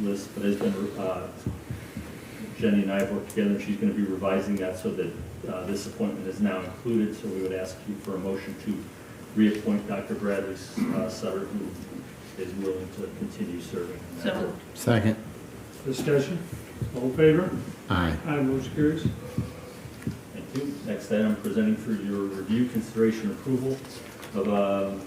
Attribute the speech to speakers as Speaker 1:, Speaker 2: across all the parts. Speaker 1: list, but has been, uh, Jenny and I have worked together, and she's gonna be revising that so that uh, this appointment is now included, so we would ask you for a motion to reappoint Dr. Bradley uh, Sutter, who is willing to continue serving. on that
Speaker 2: So
Speaker 1: board.
Speaker 2: moved.
Speaker 3: Second.
Speaker 4: Discussion, all in favor?
Speaker 3: Aye.
Speaker 4: Aye, motion carries.
Speaker 1: Thank you. Next item, presenting for your review, consideration, approval of um,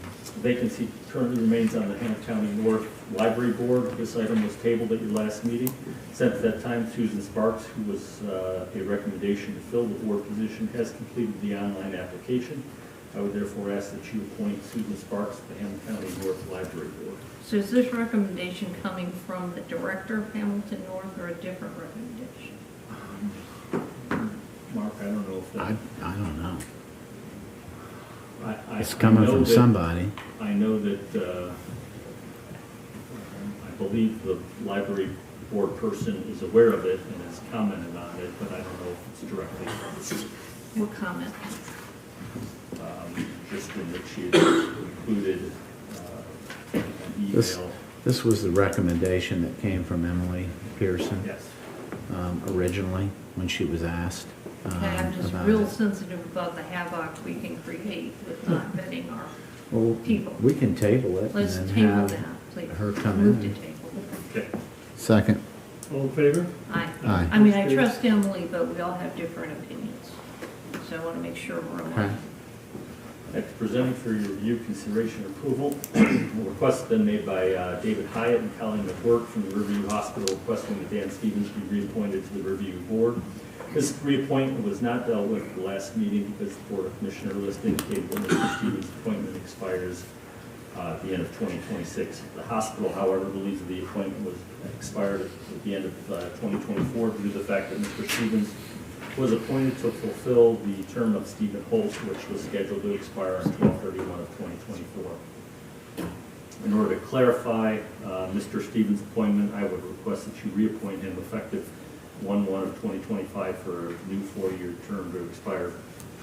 Speaker 1: vacancy currently remains on the Hannah County North Library Board. This item was tabled at your last meeting. Since that time, Susan Sparks, who was uh, a recommendation to fill the board position, has completed the online application. I would therefore ask that you appoint Susan Sparks to the Hannah County North Library Board.
Speaker 2: So is this recommendation coming from the director of Hamilton North or a different recommendation?
Speaker 1: Mark, I don't know if
Speaker 3: Um, I,
Speaker 1: that...
Speaker 3: I don't know.
Speaker 1: I- I-
Speaker 3: It's
Speaker 1: I
Speaker 3: coming
Speaker 1: know
Speaker 3: from
Speaker 1: that-
Speaker 3: somebody.
Speaker 1: I know that, uh, I believe the library board person is aware of it and has commented on it, but I don't know if it's directly,
Speaker 2: What comment?
Speaker 1: um, just in that she had included uh, an
Speaker 3: This-
Speaker 1: email.
Speaker 3: This was the recommendation that came from Emily Pearson
Speaker 1: Yes.
Speaker 3: um, originally, when she was asked. um,
Speaker 2: Okay, I'm just
Speaker 3: about
Speaker 2: real
Speaker 3: it.
Speaker 2: sensitive about the havoc we can create with not vetting our,
Speaker 3: Well,
Speaker 2: people.
Speaker 3: We can table it
Speaker 2: let's
Speaker 3: Hmm. and then
Speaker 2: table
Speaker 3: have.
Speaker 2: that, please.
Speaker 3: her come
Speaker 2: Move
Speaker 3: in.
Speaker 2: to table.
Speaker 1: Okay,
Speaker 3: Second.
Speaker 4: All in favor?
Speaker 2: I,
Speaker 3: Aye.
Speaker 2: I mean, I trust Emily, but we all have different opinions, so I want to make sure we're
Speaker 3: Okay.
Speaker 2: aligned.
Speaker 1: next, presenting for your review, consideration, approval, a request has been made by uh, David Hyatt and Colleen McWork from the Riverview Hospital requesting that Dan Stevens be reappointed to the Riverview Board. This reappointment was not dealt with at the last meeting because the Board of Commissioner list indicated when Mr. Stevens' appointment expires uh, at the end of 2026. The hospital, however, believes that the appointment was expired at the end of uh, 2024 due to the fact that Mr. Stevens was appointed to fulfill the term of Stephen Holtz, which was scheduled to expire on 12/31 of 2024. In order to clarify uh, Mr. Stevens' appointment, I would request that you reappoint him effective 1/1 of 2025 for a new four-year term to expire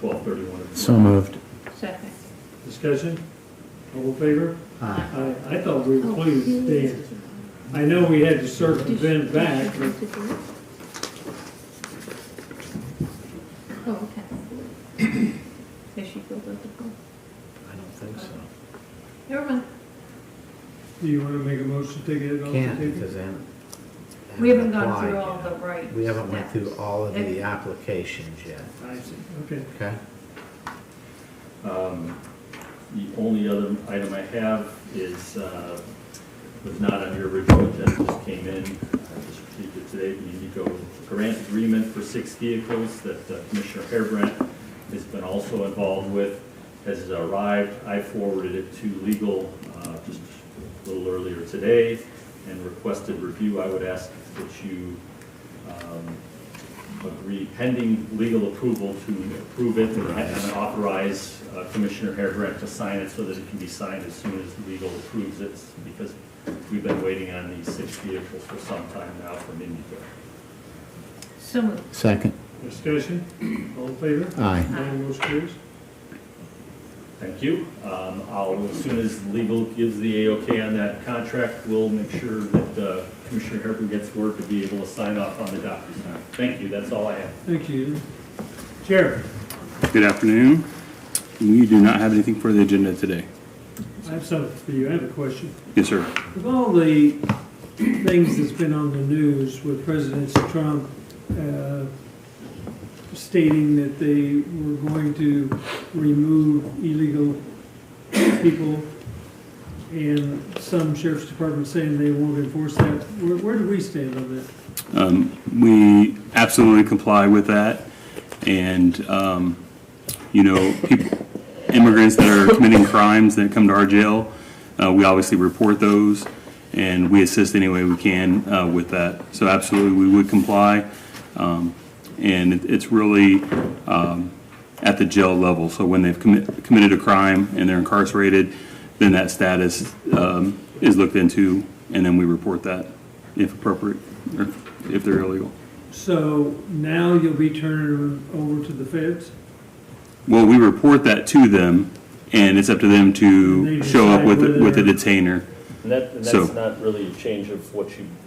Speaker 1: 12/31 of...
Speaker 3: So moved.
Speaker 2: Second.
Speaker 4: Discussion, all in favor?
Speaker 3: Aye.
Speaker 4: I, I thought we were pleased, Dan. I know we had to circumvent back, but
Speaker 2: Oh, okay. Does she filled out the form?
Speaker 3: I don't think so.
Speaker 2: Never mind.
Speaker 4: do you want to make a motion to get it off the
Speaker 3: Can't
Speaker 4: table?
Speaker 3: because they haven't. they
Speaker 2: We haven't
Speaker 3: haven't
Speaker 2: gone through
Speaker 3: applied
Speaker 2: all the
Speaker 3: yet.
Speaker 2: right.
Speaker 3: We haven't went through
Speaker 2: steps.
Speaker 3: all of
Speaker 2: It-
Speaker 3: the applications yet,
Speaker 4: I see, okay.
Speaker 3: okay?
Speaker 1: Um, The only other item I have is, uh, was not on your original agenda, just came in, I just received it today, the Indigo grant agreement for six vehicles that uh, Commissioner Harebrant has been also involved with, has arrived. I forwarded it to legal uh, just a little earlier today and requested review. I would ask that you um, agree pending legal approval to approve it and and authorize uh, Commissioner Harebrant to sign it so that it can be signed as soon as legal approves it, because we've been waiting on these six vehicles for some time now from Indigo.
Speaker 2: So moved.
Speaker 3: Second.
Speaker 4: Discussion, all in favor?
Speaker 3: Aye.
Speaker 4: Aye, motion carries.
Speaker 1: Thank you. Um, I'll, as soon as legal gives the A-OK on that contract, we'll make sure that uh, Commissioner Harebrant gets word to be able to sign off on the DocuSign. Thank you, that's all I have.
Speaker 4: Thank you. Chair,
Speaker 5: Good afternoon. We do not have anything for the agenda today.
Speaker 4: I have something for you, I have a question.
Speaker 5: Yes, sir.
Speaker 4: Of all the things that's been on the news with President Trump uh, stating that they were going to remove illegal people, and some sheriff's departments saying they won't enforce that, where, where do we stand on that?
Speaker 5: Um, We absolutely comply with that. And, um, you know, peop- immigrants that are committing crimes that come to our jail, uh, we obviously report those, and we assist any way we can uh, with that. So absolutely, we would comply. Um, And it- it's really um, at the jail level. So when they've commi- committed a crime and they're incarcerated, then that status um, is looked into, and then we report that if appropriate, or if they're illegal.
Speaker 4: So now you'll be turning them over to the feds?
Speaker 5: Well, we report that to them, and it's up to them
Speaker 4: And
Speaker 5: to
Speaker 4: they
Speaker 5: show up
Speaker 4: decide
Speaker 5: with, with
Speaker 4: whether-
Speaker 5: a detainer.
Speaker 6: And that, and
Speaker 5: So-
Speaker 6: that's not really a change of what you